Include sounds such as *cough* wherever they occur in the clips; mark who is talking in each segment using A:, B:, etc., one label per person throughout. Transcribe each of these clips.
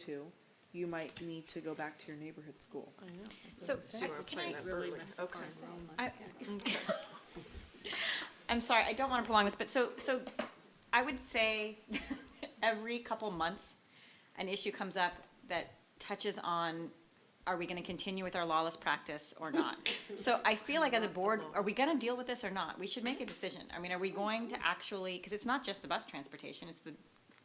A: to, you might need to go back to your neighborhood school.
B: So,
C: So we're
B: can
C: playing
B: I
C: that
B: really
C: verbally.
B: mess up
C: Okay.
B: I- *laughs* I'm sorry, I don't want to prolong this, but so, so I would say *laughs* every couple months, an issue comes up that touches on, are we going to continue with our lawless practice or not? So I feel like as a board, are we going to deal with this or not? We should make a decision. I mean, are we going to actually, because it's not just the bus transportation, it's the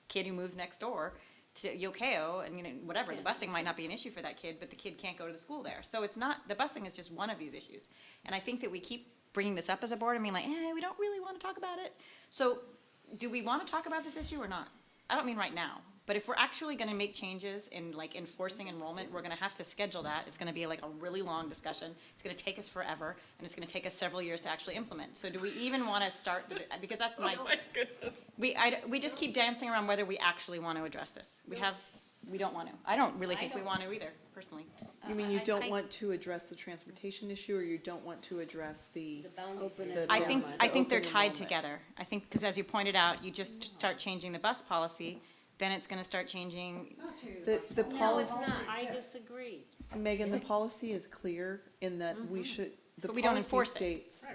B: kid who moves next door to Yokeo, and, you know, whatever, the busing might not be an issue for that kid, but the kid can't go to the school there. So it's not, the busing is just one of these issues. And I think that we keep bringing this up as a board and being like, eh, we don't really want to talk about it. So do we want to talk about this issue or not? I don't mean right now, but if we're actually going to make changes in like enforcing enrollment, we're going to have to schedule that. It's going to be like a really long discussion. It's going to take us forever, and it's going to take us several years to actually implement. So do we even want to start, the- because that's my, we, I, d- we just keep dancing around whether we actually want to address this. We have, we don't want to. I don't really
D: I
B: think we
D: don't.
B: want to either, personally.
A: You
B: Uh,
A: mean you
D: I-
A: don't
D: I-
A: want to address the transportation issue, or you don't want to address the,
D: The boundaries.
C: Open
D: of
C: it
D: the
A: up.
B: I think,
C: enrollment,
B: I think they're
C: open
B: tied
C: enrollment.
B: together. I think, because as you pointed out, you just start changing the bus policy, then it's gonna start changing,
A: the, the
D: No, it's
A: policy?
D: not, I disagree.
A: Megan, the policy is clear in that we should, the
B: Mm-hmm. But we don't
A: policy
B: enforce it.
A: states.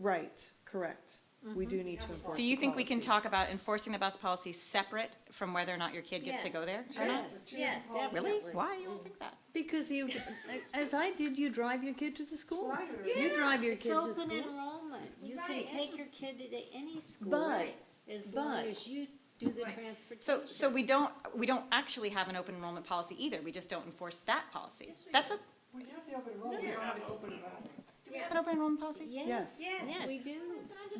A: Right, correct. We do need to enforce
B: Mm-hmm. so you
A: the
B: think we can
A: policy.
B: talk about enforcing the bus policy separate from whether or not your kid gets to
D: Yes.
B: go there? or not?
D: Yes, yes,
B: Really?
D: definitely.
B: Why you don't think that?
C: Because you, as I did, you drive your kid to the school. You drive your
D: It's
C: kids to
D: open
C: school.
D: enrollment, you can
E: Right.
D: take your kid to any school,
C: But-
D: as long
C: but-
D: as you do the transportation.
B: So, so we don't, we don't actually have an open enrollment policy either, we just don't enforce that policy. That's a,
F: We have the open enrollment, we don't have the open busing.
B: do we have an open enrollment policy?
D: Yes,
A: Yes.
D: yes, we do.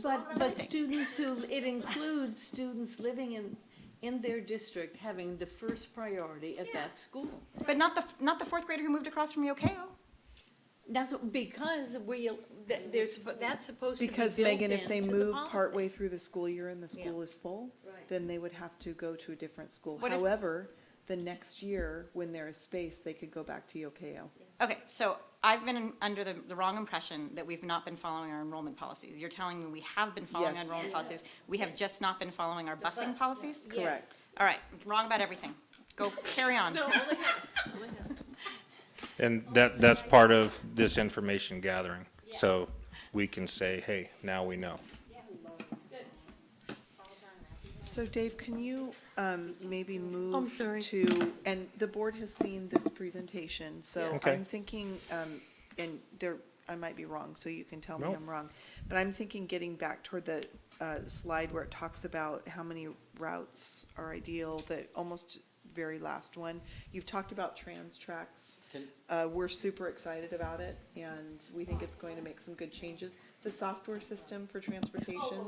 C: But, but students who, it includes students living in, in their district having the first priority at that school.
B: But not the, not the fourth grader who moved across from Yokeo.
C: That's what- because we, that, there's, that's supposed to be
A: Because
C: built
A: Megan, if
C: into
A: they
C: the
A: move
C: policy.
A: partway through the school year and the
C: Yeah.
A: school is full,
D: Right.
A: then they would have to go to a different school.
B: What if-
A: However, the next year, when there is space, they could go back to Yokeo.
B: Okay, so I've been in- under the, the wrong impression that we've not been following our enrollment policies. You're telling me we have been following our
A: Yes.
B: enrollment policies, we have just not been following our busing
D: bus,
B: policies?
A: Correct.
B: All right, wrong about everything. Go, carry on.
G: And that, that's part of this information gathering. So we can say, hey, now we know.
A: So Dave, can you um, maybe move?
C: sorry.
A: To, and the board has seen this presentation, so
G: Okay.
A: I'm thinking, um, and there, I might be wrong, so you can tell me
G: Nope.
A: I'm wrong. But I'm thinking getting back toward the uh, slide where it talks about how many routes are ideal, the almost very last one. You've talked about trans tracks.
H: Can-
A: Uh, We're super excited about it, and we think it's going to make some good changes. The software system for transportation.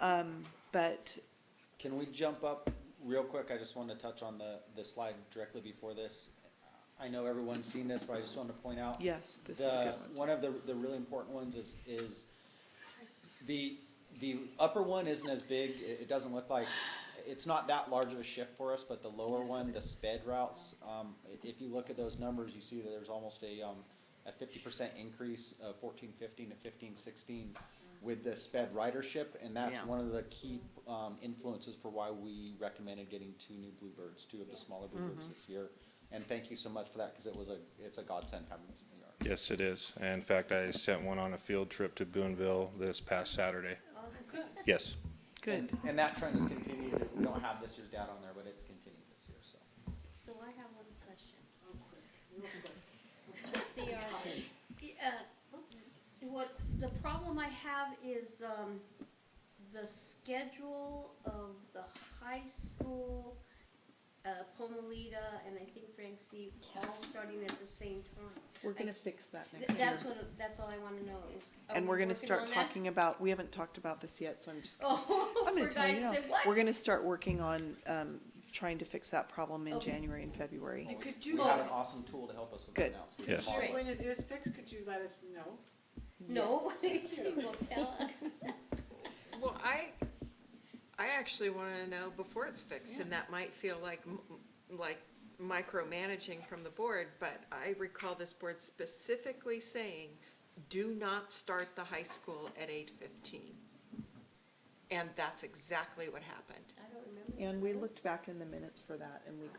A: um, But
H: Can we jump up real quick? I just want to touch on the, the slide directly before this. I know everyone's seen this, but I just wanted to point out.
A: Yes, this is a
H: the-
A: good one.
H: One of the, the really important ones is, is the, the upper one isn't as big, it, it doesn't look like, it's not that large of a shift for us, but the lower one, the sped routes, um, i- if you look at those numbers, you see that there's almost a, um, a fifty percent increase of fourteen fifteen to fifteen sixteen with the sped ridership, and that's
C: Yeah.
H: one of the key, um, influences for why we recommended getting two new Bluebirds, two of the smaller
A: Mm-hmm.
H: Bluebirds this year. And thank you so much for that, cause it was a, it's a godsend having this in New York.
G: Yes, it is. And In fact, I sent one on a field trip to Boonville this past Saturday. Yes.
A: Good.
H: And- And that trend has continued. We don't have this year's data on there, but it's continued this year, so.
D: So I have one question. Trustee Arlen. Uh, What, the problem I have is, um, the schedule of the high school, uh, Pomalita, and I think Frank C, all starting at the same time.
A: We're gonna fix that
D: Th-
A: next year.
D: That's what, that's all I wanna know is. are
A: And
D: we
A: we're gonna
D: working
A: start
D: on that?
A: talking about, we haven't talked about this yet, so I'm just,
D: *laughs* Oh,
A: I'm gonna
D: forgot
A: tell
D: to
A: you now.
D: say what?
A: We're gonna start working on, um, trying to fix that problem in
D: Okay.
A: January and February.
F: And could
H: We
F: you,
H: have
F: let
H: an
F: us-
H: awesome tool to help us with
A: Good.
H: that now. so we can
G: Yes.
H: follow
D: Great.
H: up.
F: when it is fixed, could you let us know?
D: No,
C: *laughs*
D: she will tell us.
I: Well, I, I actually want to know before it's fixed, and that might feel like, m- m- like micromanaging from the board, but I recall this board specifically saying, do not start the high school at eight fifteen. And that's exactly what happened.
D: I don't remember
A: and we looked back in the minutes for that and we